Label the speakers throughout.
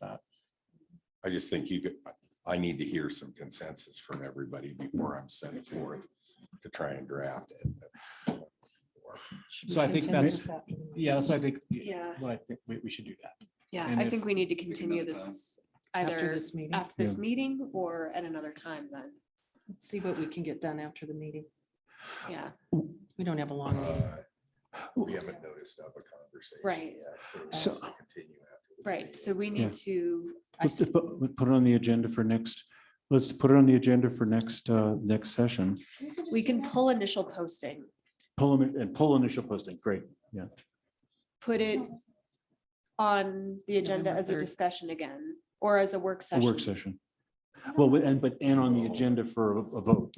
Speaker 1: that.
Speaker 2: I just think you could, I need to hear some consensus from everybody before I'm sent forth to try and draft it.
Speaker 3: Should we
Speaker 1: So I think
Speaker 3: continue
Speaker 1: that's-
Speaker 3: this after the meeting?
Speaker 1: Yeah, so I think,
Speaker 4: Yeah.
Speaker 1: well, I think we, we should do that.
Speaker 4: Yeah,
Speaker 1: And
Speaker 4: I
Speaker 1: if-
Speaker 4: think we need to
Speaker 5: another
Speaker 4: continue
Speaker 5: time.
Speaker 4: this
Speaker 3: After
Speaker 4: either
Speaker 3: this meeting,
Speaker 4: after this meeting or at another time then.
Speaker 3: Let's see what we can get done after the meeting.
Speaker 4: Yeah,
Speaker 3: We don't have a long meeting.
Speaker 2: Uh, We haven't noticed of a conversation.
Speaker 4: Right.
Speaker 2: yet, so it
Speaker 6: So-
Speaker 2: has to continue after this
Speaker 4: right. So we
Speaker 6: Yeah.
Speaker 4: need to,
Speaker 3: I
Speaker 6: Let's
Speaker 3: see.
Speaker 6: just put, let's put it on the agenda for next, let's put it on the agenda for next, uh, next session.
Speaker 4: we can pull initial posting,
Speaker 6: Pull them and pull initial posting. Great.
Speaker 4: put it on the agenda
Speaker 3: November
Speaker 4: as a
Speaker 3: 3rd.
Speaker 4: discussion again, or as a work
Speaker 6: A
Speaker 4: session.
Speaker 6: work session. Well, we- and but and on the agenda for a a vote.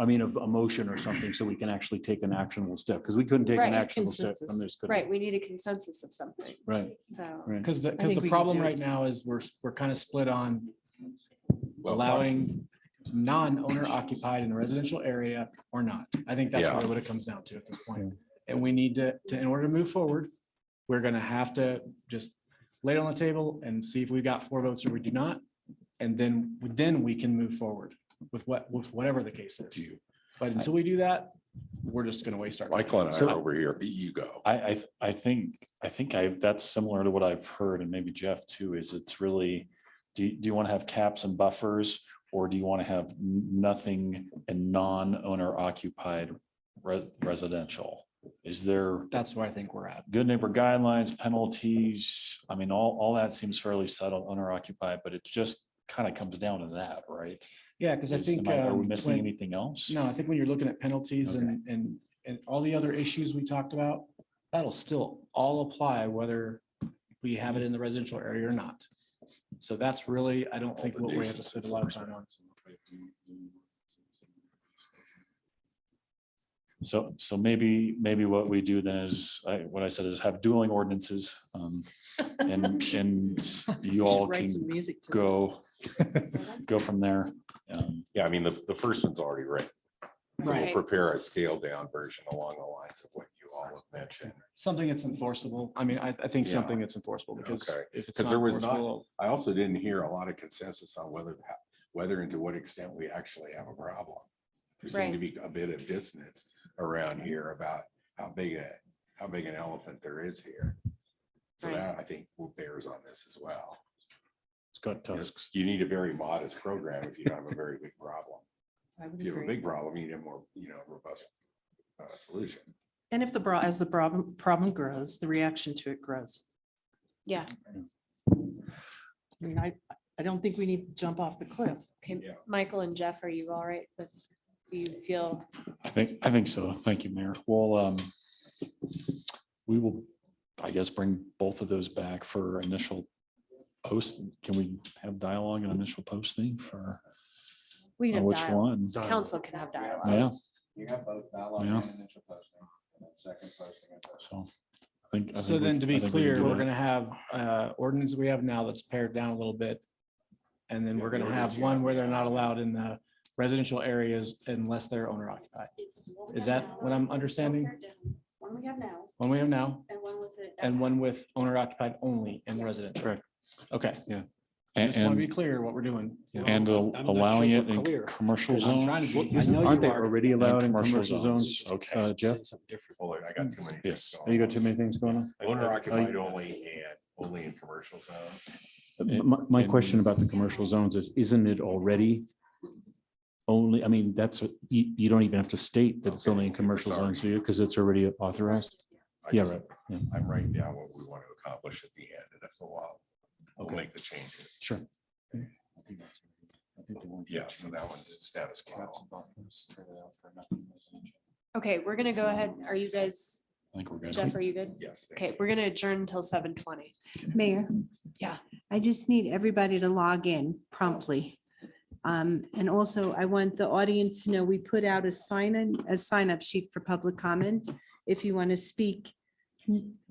Speaker 6: I mean, of a motion or something, so we can actually take an actionable step because we couldn't take
Speaker 4: Right,
Speaker 6: an actionable step from
Speaker 3: consensus.
Speaker 6: this. could we?
Speaker 4: Right, we need a consensus of something,
Speaker 6: Right.
Speaker 4: so.
Speaker 7: Mm-hmm.
Speaker 6: Right.
Speaker 1: Because the, because
Speaker 3: think
Speaker 1: the
Speaker 3: we can
Speaker 1: problem
Speaker 3: do it.
Speaker 1: right now is we're, we're kind of split on
Speaker 7: Oh,
Speaker 2: Well,
Speaker 1: allowing non-owner occupied in a residential area or not. I think that's
Speaker 2: Yeah.
Speaker 1: really what it comes down to at this point. And we need to, to, in order to move forward, we're gonna have to just lay it on the table and see if we got four votes or we do not. And then, then we can move forward with what, with whatever the case is. But until we do that, we're just gonna waste our. time.
Speaker 2: Michael and I
Speaker 7: So-
Speaker 2: are over here, you go.
Speaker 7: I, I, th- I think, I think I, that's similar to what I've heard and maybe Jeff too, is it's really, do, you- do you want to have caps and buffers? Or do you want to have n- nothing and non-owner occupied res- residential? Is there
Speaker 1: That's where I think we're at.
Speaker 7: good neighbor guidelines, penalties? I mean, all, all that seems fairly settled, owner occupied, but it just kind of comes down to that, right?
Speaker 1: Yeah, because I
Speaker 7: Is-
Speaker 1: think.
Speaker 7: am Are we
Speaker 1: um,
Speaker 7: missing
Speaker 1: when-
Speaker 7: anything else?
Speaker 1: No, I think when you're looking at penalties
Speaker 7: Okay.
Speaker 1: and, and, and all the other issues we talked about, that'll still all apply whether we have it in the residential area or not. So that's really, I don't think what we have to spend a lot of time on.
Speaker 7: So, so maybe, maybe what we do then is, I, what I said is have dueling ordinances, um, and, and you all
Speaker 3: Should Write some
Speaker 7: can
Speaker 3: music to.
Speaker 7: go, go from there. Um,
Speaker 2: Yeah, I mean, the, the first one's already written. So we'll
Speaker 4: Right.
Speaker 2: prepare a scaled down version along the lines of what you all have mentioned.
Speaker 1: Something that's enforceable. I mean, I, I think
Speaker 2: Yeah.
Speaker 1: something that's enforceable because
Speaker 2: Okay.
Speaker 1: if it's
Speaker 2: 'Cause
Speaker 1: not
Speaker 2: there was not-
Speaker 1: enforceable,
Speaker 2: I also didn't hear a lot of consensus on whether, whether and to what extent we actually have a problem. There seemed to
Speaker 4: Right.
Speaker 2: be a bit of dissonance around here about how big a, how big an elephant there is here. So
Speaker 4: Right.
Speaker 2: that I think will bears on this as well.
Speaker 6: It's got tusks.
Speaker 2: You need a very modest program if you don't have a very big problem.
Speaker 3: I would
Speaker 2: If you have a
Speaker 3: agree.
Speaker 2: big problem, you need a more, you know, robust uh, solution.
Speaker 3: And if the bra, as the problem, problem grows, the reaction to it grows.
Speaker 4: Yeah.
Speaker 3: I mean, I, I don't think we need to jump off the cliff.
Speaker 4: Okay,
Speaker 2: Yeah.
Speaker 4: Michael and Jeff, are you all right with, do you feel,
Speaker 7: I think, I think so. Thank you, Mayor. Well, um, we will, I guess, bring both of those back for initial post. Can we have dialogue and initial posting for
Speaker 4: we
Speaker 7: on
Speaker 4: can have
Speaker 7: which
Speaker 4: dialogue,
Speaker 7: one?
Speaker 4: council can have dialogue.
Speaker 7: Yeah,
Speaker 5: You have both dialogue
Speaker 7: Yeah.
Speaker 5: and initial posting, and then second posting. and third.
Speaker 7: so. I think- I think
Speaker 1: so
Speaker 7: we-
Speaker 1: then to be
Speaker 7: I think we can
Speaker 1: clear,
Speaker 7: do
Speaker 1: we're
Speaker 7: that.
Speaker 1: gonna have, uh, ordinance we have now that's pared down a little bit. And then we're gonna have one where they're not allowed in the residential areas unless they're owner occupied. Is that what I'm understanding?
Speaker 8: One we have now
Speaker 1: One we have now
Speaker 8: and one with it.
Speaker 1: and one with owner occupied only in residential.
Speaker 7: Correct.
Speaker 1: Okay, I
Speaker 7: And,
Speaker 1: just want to be
Speaker 7: and-
Speaker 1: clear what we're doing.
Speaker 7: and al- allowing it in commercial
Speaker 1: I'm trying to-
Speaker 7: zones.
Speaker 1: I know
Speaker 6: uh, Aren't they
Speaker 1: you are.
Speaker 6: already
Speaker 7: And
Speaker 6: allowed in commercial zones?
Speaker 7: Okay.
Speaker 6: Uh, Jeff,
Speaker 2: Hold on, I got too many.
Speaker 7: Yes.
Speaker 6: Oh, you got too many things going on?
Speaker 2: Owner occupied only and only in commercial zones.
Speaker 7: And-
Speaker 6: My, my
Speaker 7: Uh, and-
Speaker 6: question about the commercial zones is, isn't it already only, I mean, that's, what- you, you don't even have to state that it's
Speaker 2: Okay,
Speaker 6: only in
Speaker 2: if it's
Speaker 6: commercial
Speaker 2: already-
Speaker 6: zones, do you? Because it's already authorized.
Speaker 2: I
Speaker 6: Yeah,
Speaker 2: just-
Speaker 6: right. Yeah.
Speaker 2: I'm writing down what we want to accomplish at the end, and if a while, we'll
Speaker 6: Okay.
Speaker 2: make the changes.
Speaker 6: Sure.
Speaker 2: Yeah, so that one's status quo.
Speaker 4: Okay, we're gonna go ahead. Are you guys,
Speaker 7: I think we're
Speaker 4: Jeff,
Speaker 7: good.
Speaker 4: are you good?
Speaker 2: Yes. thank
Speaker 4: Okay,
Speaker 2: you.
Speaker 4: we're gonna adjourn until seven twenty.
Speaker 9: Mayor.
Speaker 4: Yeah.
Speaker 9: I just need everybody to log in promptly. Um, and also I want the audience to know, we put out a sign in, a sign up sheet for public comment. If you want to speak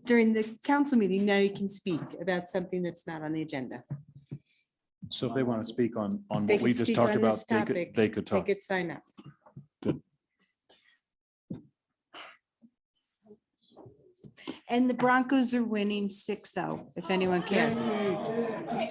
Speaker 9: during the council meeting, now you can speak about something that's not on the agenda.
Speaker 6: So if they want to speak on, on
Speaker 9: They
Speaker 6: what
Speaker 9: could
Speaker 6: we just
Speaker 9: speak
Speaker 6: talked
Speaker 9: on
Speaker 6: about,
Speaker 9: this
Speaker 6: they could,
Speaker 9: topic.
Speaker 6: they could
Speaker 7: Oh.
Speaker 9: They
Speaker 6: talk.
Speaker 9: could sign up. oh, And the Broncos are winning 6-0, if anyone cares.